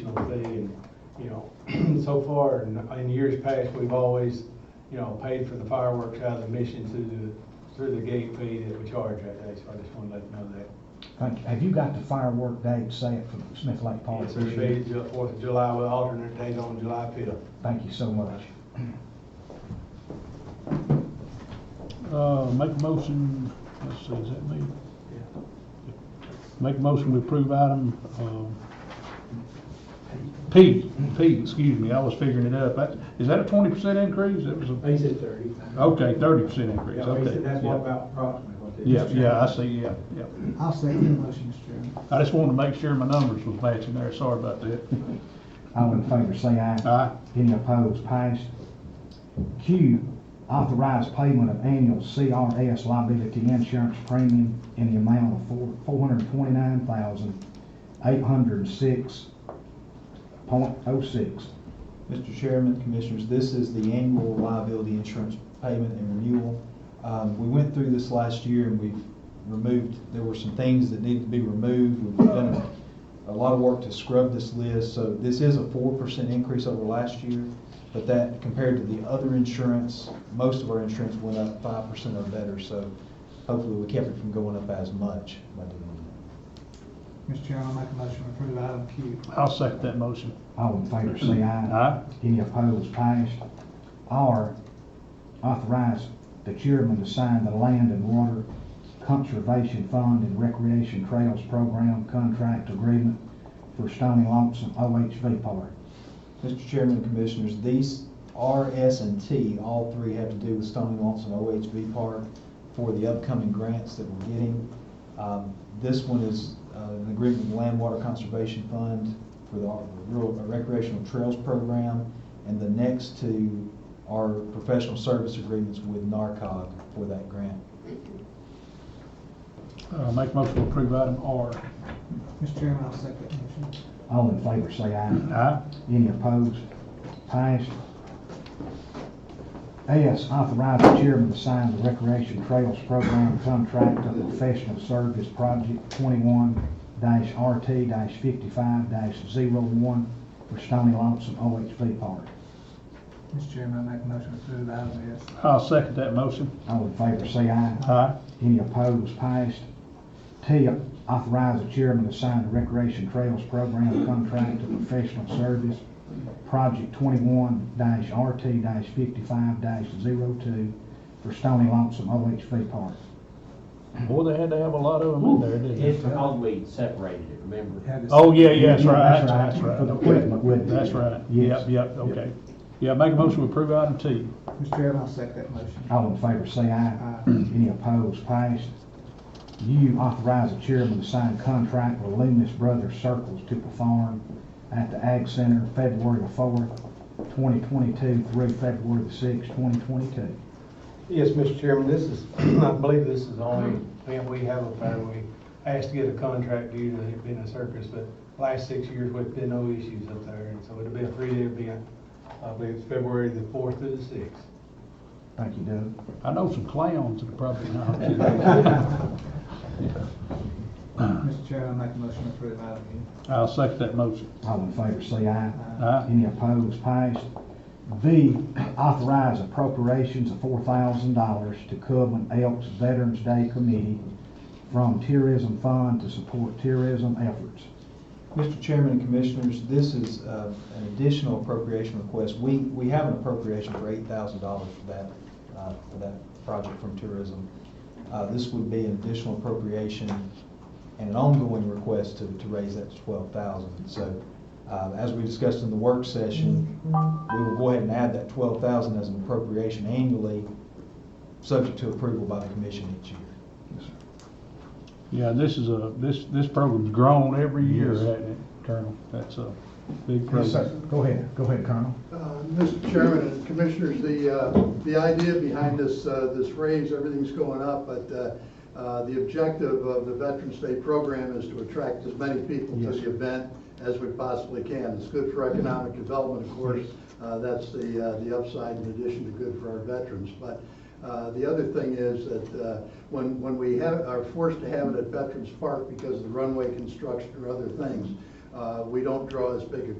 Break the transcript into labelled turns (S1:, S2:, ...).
S1: seen so far, in, in years past, we've always, you know, paid for the fireworks out of the mission through the, through the gate fee that we charge that day, so I just wanna let you know that.
S2: Thank you. Have you got the firework date set for Smith Lake
S3: Oh,
S2: Park?
S1: It's gonna be the Fourth of July with alternate date on July fifth.
S2: Thank you so much.
S3: Uh, make a motion, let's see, is that me? Make a motion to approve item, um, P, P, excuse me, I was figuring it up. That- Is that a twenty percent increase? That was a,
S1: He said thirty.
S3: okay, thirty percent increase, Oh, okay. yeah.
S1: about approximately what
S3: Yeah, yeah, I see, yeah, yeah.
S4: I'll second the motion, Mr. Chairman.
S3: I just wanted to make sure my numbers was matching there, sorry about that.
S2: All in favor, say aye.
S3: Aye.
S2: Any opposed, passed. Q, authorize payment of annual CRS liability insurance premium in the amount of four, four hundred and twenty-nine thousand, eight hundred and six point oh six.
S5: Mr. Chairman, Commissioners, this is the annual liability insurance payment and renewal. Um, We went through this last year and we've removed, there were some things that needed to be removed. We've done a lot of work to scrub this list, so this is a four percent increase over last year. But that, compared to the other insurance, most of our insurance went up five percent or better, so hopefully we kept it from going up as much by doing
S4: Mr. Chairman, I'll make a motion to approve item Q.
S3: I'll second that motion.
S2: All in favor, say aye.
S3: Aye.
S2: Any opposed, passed. R, authorize the chairman to sign the Land and Water Conservation Fund and Recreation Trails Program Contract Agreement for Stony Lawson OHV Park.
S5: that. Mr. Chairman and Commissioners, these R, S, and T, all three have to do with Stony Lawson OHV Park for the upcoming grants that we're getting. Um, This one is uh, an agreement with the Land Water Conservation Fund for the Rural uh, Recreational Trails Program, and the next two are professional service agreements with NARCOG for that grant.
S3: Uh, make a motion to approve item R.
S4: Mr. Chairman, I'll second the motion.
S2: All in favor, say aye.
S3: Aye.
S2: Any opposed? Passed. S, authorize the chairman to sign the Recreation Trails Program Contract of Professional Service Project twenty-one RT fifty-five one for Stony Lawson OHV Park.
S4: Mr. Chairman, I make a motion to approve item S.
S3: I'll second that motion.
S2: All in favor, say aye.
S3: Aye.
S2: Any opposed, passed. T, authorize the chairman to sign the Recreation Trails Program Contract of Professional Service, Project twenty-one RT fifty-five 2 for Stony Lonesome OHV Park.
S3: Boy, they had to have a lot of them in there, didn't they?
S6: It's because we separated it, remember?
S4: Had to-
S3: Oh, yeah, yeah, that's
S2: Yeah,
S3: right,
S2: that's
S3: that's
S2: right.
S3: right.
S2: For the
S3: okay.
S2: equipment, wouldn't it?
S3: That's right,
S2: Yes.
S3: yep, yep, okay. Yeah, make a motion to approve item T.
S4: Mr. Chairman, I'll second that motion.
S2: All in favor, say aye. Any opposed, passed. U, authorize the chairman to sign contract with Loomis Brothers Circles to perform at the Ag Center February the fourth, twenty twenty-two through February the sixth, twenty twenty-two.
S1: Yes, Mr. Chairman, this is, I believe this is the only event we have up there. We asked to get a contract due to it being a circus, but last six years, we've been no issues up there. And so it'll be a three-day event. I believe it's February the fourth through the sixth.
S2: Thank you, Doug.
S3: I know some clowns that are probably not.
S4: Mr. Chairman, I make a motion to approve item U.
S3: I'll second that motion.
S2: All in favor, say aye.
S3: Aye.
S2: Any opposed, passed. V, authorize appropriations of four thousand dollars to Coven Elks Veterans Day Committee from Tourism Fund to support tourism efforts.
S5: Mr. Chairman and Commissioners, this is uh, an additional appropriation request. We, we have an appropriation for eight thousand dollars for that, uh, for that project from tourism. Uh, This would be an additional appropriation and an ongoing request to, to raise that to twelve thousand. So uh, as we discussed in the work session, we will go ahead and add that twelve thousand as an appropriation annually, subject to approval by the commission each year.
S3: Yeah, this is a, this, this program's grown every year,
S5: Yes.
S3: hasn't it, Colonel? That's a big program.
S2: Go ahead, go ahead, Colonel.
S7: Uh, Mr. Chairman and Commissioners, the, uh, the idea behind this, uh, this raise, everything's going up, but uh, uh, the objective of the Veterans Day program is to attract as many people to
S2: Yes.
S7: the event as we possibly can. It's good for economic development, of course, Uh, that's the, uh, the upside in addition to good for our veterans. But uh, the other thing is that uh, when, when we have, are forced to have it at Veterans Park because of the runway construction or other things, uh, we don't draw as big a